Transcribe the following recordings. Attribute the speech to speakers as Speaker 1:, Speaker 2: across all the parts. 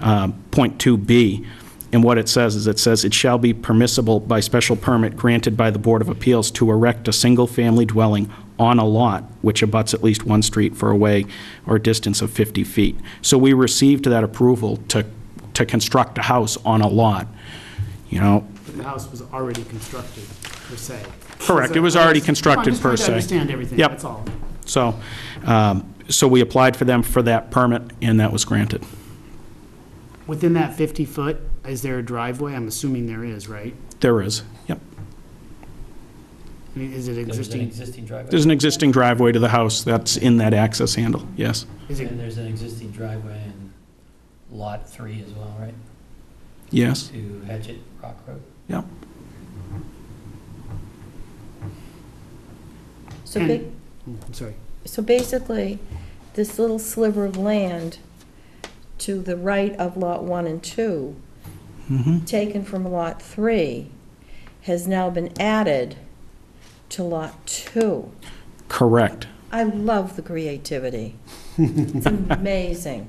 Speaker 1: uh, point 2B. And what it says is, it says, "It shall be permissible by special permit granted by the Board of Appeals to erect a single-family dwelling on a lot which abuts at least one street for a way or distance of 50 feet." So we received that approval to, to construct a house on a lot, you know?
Speaker 2: The house was already constructed, per se.
Speaker 1: Correct, it was
Speaker 2: So-
Speaker 1: already constructed, per se.
Speaker 2: I'm just trying to understand everything,
Speaker 1: Yep.
Speaker 2: that's all.
Speaker 1: So, um, so we applied for them for that permit, and that was granted.
Speaker 2: Within that 50-foot, is there a driveway? I'm assuming there is, right?
Speaker 1: There is, yep.
Speaker 2: I mean, Is it
Speaker 3: There's an
Speaker 2: existing?
Speaker 3: existing driveway,
Speaker 1: There's an existing driveway to the house that's in that access handle, yes.
Speaker 2: Is it,
Speaker 3: and there's an existing driveway in Lot 3 as well, right?
Speaker 1: Yes,
Speaker 3: To Hatchet Rock Road?
Speaker 1: yep.
Speaker 4: So,
Speaker 2: And-
Speaker 4: ba-
Speaker 2: oh, I'm sorry.
Speaker 4: so basically, this little sliver of land to the right of Lot 1 and 2,
Speaker 1: Mhm.
Speaker 4: taken from Lot 3, has now been added to Lot 2.
Speaker 1: Correct.
Speaker 4: I love the creativity. It's amazing.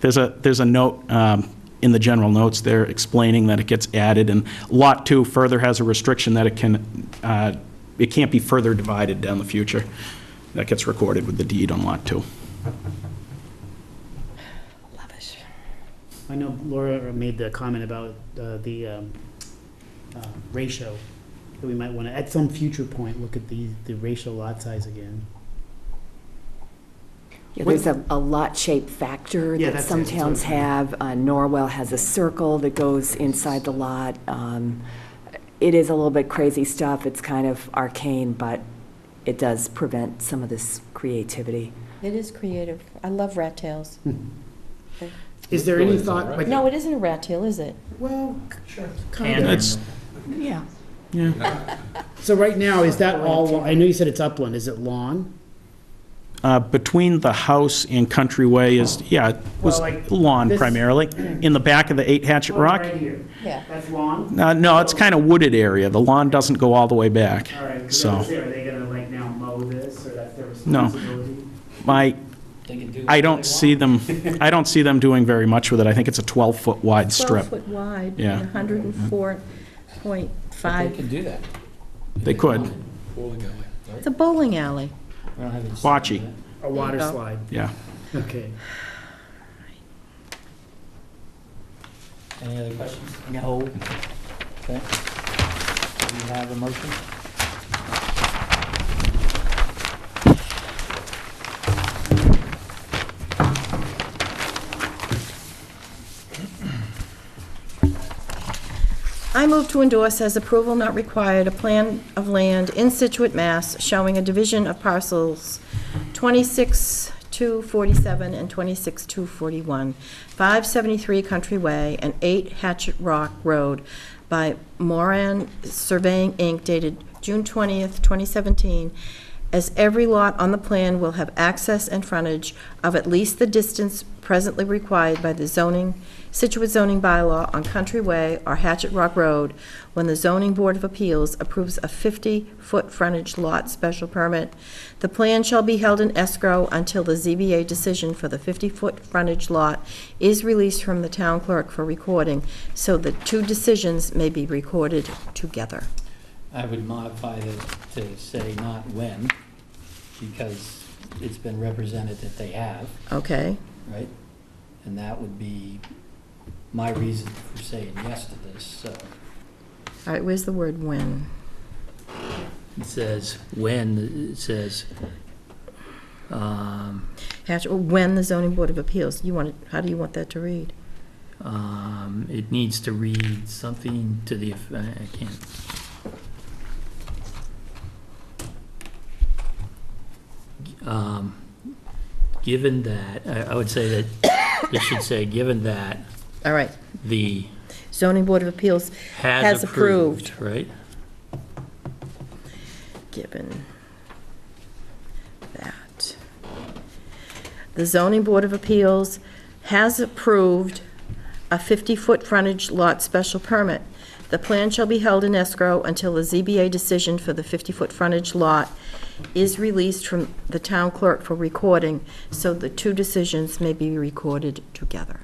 Speaker 1: There's a, there's a note um, in the general notes there explaining that it gets added, and Lot 2 further has a restriction that it can, uh, it can't be further divided down the future. That gets recorded with the deed on Lot 2.
Speaker 4: Love it.
Speaker 2: I know Laura made the comment about uh, the um, uh, ratio, that we might want to, at some future point, look at the, the ratio lot size again.
Speaker 5: Yeah, There's a, a lot shape factor
Speaker 2: Yeah,
Speaker 5: that
Speaker 2: that's
Speaker 5: some
Speaker 2: it, that's what
Speaker 5: towns
Speaker 2: I'm saying.
Speaker 5: have. Uh, Norwell has a circle that goes inside the lot. Um, It is a little bit crazy stuff. It's kind of arcane, but it does prevent some of this creativity.
Speaker 4: It is creative. I love rat tails.
Speaker 2: Is there any thought, like,
Speaker 4: No, it isn't a rat tail, is it?
Speaker 2: well,
Speaker 1: And
Speaker 2: kind of.
Speaker 1: it's,
Speaker 5: Yeah.
Speaker 2: So right now, is that all, I know you said it's upland, is it lawn?
Speaker 1: uh, between the house and Countryway is, yeah, it was
Speaker 2: Well, like
Speaker 1: lawn
Speaker 2: this-
Speaker 1: primarily, in the back of the 8 Hatchet Rock.
Speaker 2: Right here.
Speaker 4: Yeah.
Speaker 2: That's lawn?
Speaker 1: Uh, No, it's kind of wooded area. The lawn doesn't go all the way back.
Speaker 2: All right,
Speaker 1: So-
Speaker 2: so that's it. are they gonna like now mow this, or that's their
Speaker 1: No.
Speaker 2: responsibility?
Speaker 1: My,
Speaker 3: They can do
Speaker 1: I
Speaker 3: what
Speaker 1: don't
Speaker 3: they
Speaker 1: see
Speaker 3: want.
Speaker 1: them, I don't see them doing very much with it. I think it's a 12-foot wide strip.
Speaker 4: 12 foot wide
Speaker 1: Yeah.
Speaker 4: and 104.5.
Speaker 3: They can do that.
Speaker 1: They could.
Speaker 4: It's a bowling alley.
Speaker 1: Bocce.
Speaker 2: A water
Speaker 4: go.
Speaker 2: slide,
Speaker 1: Yeah.
Speaker 2: okay.
Speaker 3: Any other questions? No. Okay. Do you have a motion?
Speaker 4: I move to endorse as approval not required a plan of land in Situate, Mass. showing a division of parcels 26-247 and 26-241, 573 Country Way and 8 Hatchet Rock Road by Moran Surveying, Inc., dated June 20th, 2017, as every lot on the plan will have access and frontage of at least the distance presently required by the zoning, Situate zoning bylaw on Country Way or Hatchet Rock Road when the Zoning Board of Appeals approves a 50-foot frontage lot special permit. The plan shall be held in escrow until the ZBA decision for the 50-foot frontage lot is released from the town clerk for recording, so the two decisions may be recorded together.
Speaker 3: I would modify that to say not when, because it's been represented that they have,
Speaker 4: Okay?
Speaker 3: right? And that would be my reason for saying yes to this, so.
Speaker 4: All right, where's the word "when"?
Speaker 3: It says when, it says, um,
Speaker 4: Hatch, or when the zoning board of appeals, you want, it how do you want that to read?
Speaker 3: um, it needs to read something to the, eff- I I can't. Um, Given that, I, I would say that, it should say, given that
Speaker 4: All right,
Speaker 3: the
Speaker 4: zoning board of appeals
Speaker 3: has
Speaker 4: Has approved.
Speaker 3: approved, right?
Speaker 4: given that. The zoning board of appeals has approved a 50-foot frontage lot special permit. The plan shall be held in escrow until the ZBA decision for the 50-foot frontage lot is released from the town clerk for recording, so the two decisions may be recorded together.